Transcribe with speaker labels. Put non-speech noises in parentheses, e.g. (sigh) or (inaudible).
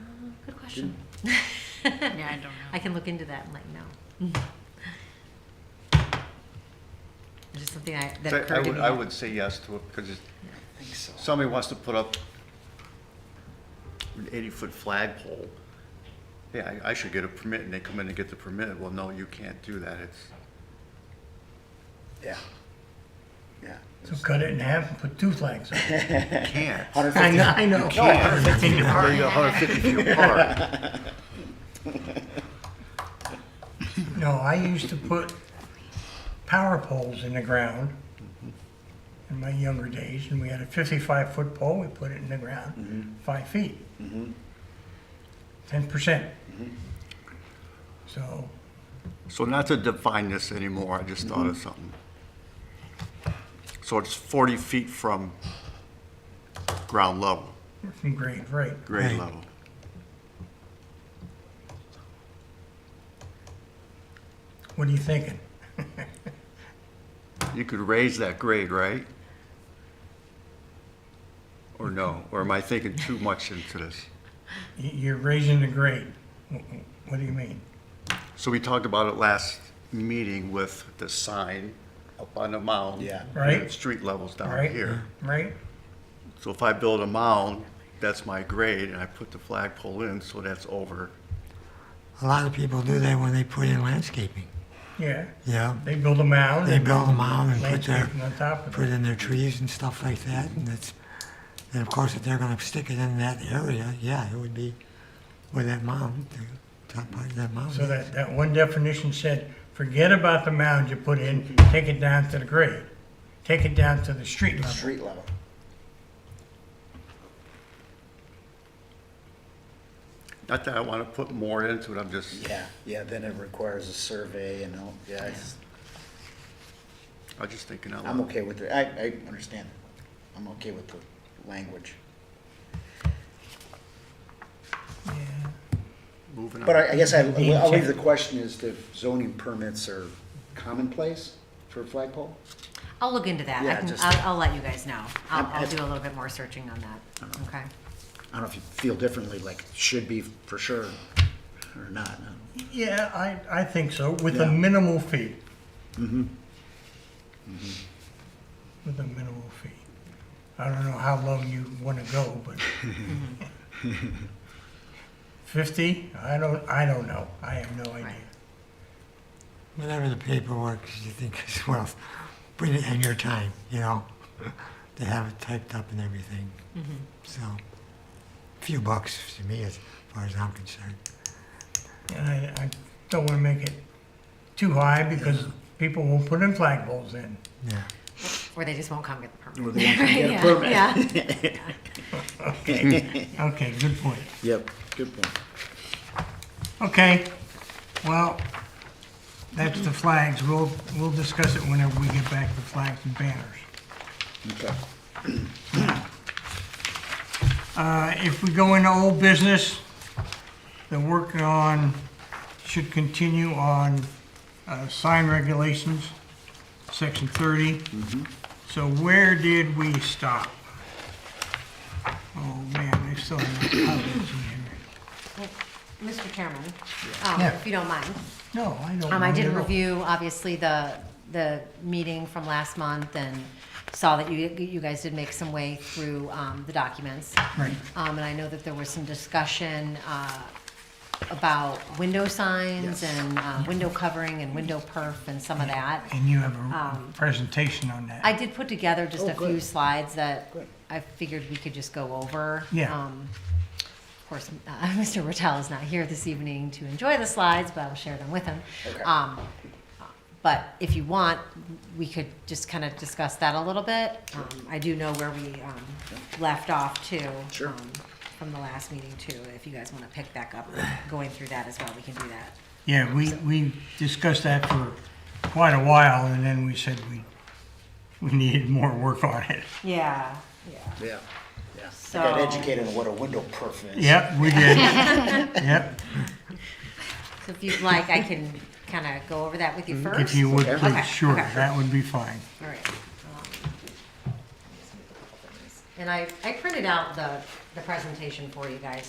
Speaker 1: Um, good question.
Speaker 2: (laughs) Yeah, I don't know.
Speaker 1: I can look into that and let you know. It's just something I, that
Speaker 3: I- I
Speaker 1: occurred to
Speaker 3: would-
Speaker 1: me.
Speaker 3: I would say yes to it, because
Speaker 2: I think so.
Speaker 3: somebody wants to put up an eighty-foot flagpole. Yeah, I I should get a permit, and they come in and get the permit. Well, no, you can't do that. It's,
Speaker 4: Yeah. Yeah.
Speaker 5: So cut it in half and put two flags on it.
Speaker 3: you (laughs) can't.
Speaker 5: (laughs) I know, I know.
Speaker 3: No, 150 feet apart. You're 150 feet apart.
Speaker 5: No, I used to put power poles in the ground in my younger days, and we had a fifty-five foot pole, we put it in the ground, five feet. Mm-hmm. Ten percent. So,
Speaker 3: So not to define this anymore, I just thought of something. So it's 40 feet from ground level,
Speaker 5: from grade, right.
Speaker 3: grade level.
Speaker 5: What are you thinking?
Speaker 3: You could raise that grade, right? Or no? Or am I thinking too much into this?
Speaker 5: Y- You're raising the grade. Wh- wh- What do you mean?
Speaker 3: So we talked about it last meeting with the sign up on the mound.
Speaker 4: Yeah.
Speaker 5: Right.
Speaker 3: And Street levels down
Speaker 5: Right?
Speaker 3: here.
Speaker 5: Right?
Speaker 3: So if I build a mound, that's my grade, and I put the flagpole in, so that's over.
Speaker 6: A lot of people do that when they put in landscaping.
Speaker 5: Yeah.
Speaker 6: Yeah,
Speaker 5: They build a mound.
Speaker 6: they
Speaker 5: and
Speaker 6: build them out and put their,
Speaker 5: landscaping On top of
Speaker 6: put
Speaker 5: it.
Speaker 6: in their trees and stuff like that, and it's, and of course, if they're gonna stick it in that area, yeah, it would be where that mound, the top part of that mound.
Speaker 5: So
Speaker 6: is.
Speaker 5: that, that one definition said, forget about the mound you put in, take it down to the grade. Take it down to the street level.
Speaker 4: Street level.
Speaker 3: Not that I want to put more into it, I'm just,
Speaker 4: Yeah, yeah, then it requires a survey and all, yeah, it's-
Speaker 3: I'm just thinking out
Speaker 4: I'm
Speaker 3: loud.
Speaker 4: okay with it. I, I understand. I'm okay with the language.
Speaker 5: Yeah.
Speaker 3: Moving on.
Speaker 4: But I, I guess I, I'll leave the question as to if zoning permits are commonplace for a flagpole?
Speaker 1: I'll look into that. I
Speaker 4: Yeah,
Speaker 1: can,
Speaker 4: just-
Speaker 1: I'll, I'll let you guys know. I'll,
Speaker 4: I'm-
Speaker 1: I'll
Speaker 4: I'm-
Speaker 1: do a little bit more searching on that, okay?
Speaker 4: I don't know if you feel differently, like should be for sure or
Speaker 1: (laughs)
Speaker 4: not.
Speaker 5: Yeah, I, I think so, with a
Speaker 4: Yeah.
Speaker 5: minimal fee. Mm-hmm. With a minimal fee. I don't know how low you wanna go, but. Fifty? I don't, I don't know. I have no idea.
Speaker 6: Whatever the paperwork is you think is (laughs) worth, bring it in your time, you know? (laughs) They have it typed up and everything. So, few bucks to me as far as I'm concerned.
Speaker 5: And I, I don't wanna make it too high because people will put in flagpoles in.
Speaker 6: Yeah,
Speaker 1: Or they just won't come get the permit. (laughs)
Speaker 4: Or they won't come get a
Speaker 1: Yeah,
Speaker 4: permit.
Speaker 1: Yeah,
Speaker 4: (laughs)
Speaker 5: Okay, good point.
Speaker 4: Yep, good point.
Speaker 5: Okay, well, that's the flags. We'll, we'll discuss it whenever we get back to flags and banners.
Speaker 4: Okay.
Speaker 5: Uh, if we go into old business, the work on, should continue on, uh, sign regulations, section thirty. So where did we stop? Oh, man, they still have comments in here.
Speaker 1: Mr. Chairman, um,
Speaker 5: Yeah.
Speaker 1: if you don't mind.
Speaker 5: No, I don't.
Speaker 1: Um, I
Speaker 5: mind
Speaker 1: did
Speaker 5: at all.
Speaker 1: review, obviously, the, the meeting from last month and saw that you, you guys did make some way through, um, the documents.
Speaker 5: Right.
Speaker 1: Um, and I know that there was some discussion, uh, about window signs and, uh, window covering and window perf and some of that.
Speaker 5: And you have a
Speaker 1: Um,
Speaker 5: presentation on that.
Speaker 1: I did put together just
Speaker 4: Oh,
Speaker 1: a few
Speaker 4: good.
Speaker 1: slides that
Speaker 4: Good.
Speaker 1: I figured we could just go over.
Speaker 5: Yeah.
Speaker 1: Um, Of course, uh, (laughs) Mr. Rattel is not here this evening to enjoy the slides, but I'll share them with him.
Speaker 4: Okay.
Speaker 1: Um, But if you want, we could just kind of discuss that a little bit. Um, I do know where we um, left off too.
Speaker 4: Sure.
Speaker 1: um, From the last meeting too, if you guys want to pick back up, going through that as well, we can do that.
Speaker 5: Yeah, we, we discussed that for quite a while, and then we said we, we needed more work on it.
Speaker 1: Yeah, yeah.
Speaker 4: Yeah, yeah. I
Speaker 1: So-
Speaker 4: got educated on what a window perf is.
Speaker 5: Yep, we
Speaker 1: (laughs)
Speaker 5: did. Yep,
Speaker 1: So if you'd like, I can kind of go over that with you first.
Speaker 5: Mm, if you would,
Speaker 4: Okay.
Speaker 5: please,
Speaker 1: Okay,
Speaker 5: sure,
Speaker 1: okay.
Speaker 5: that would be fine.
Speaker 1: All right. um, And I, I printed out the, the presentation for you guys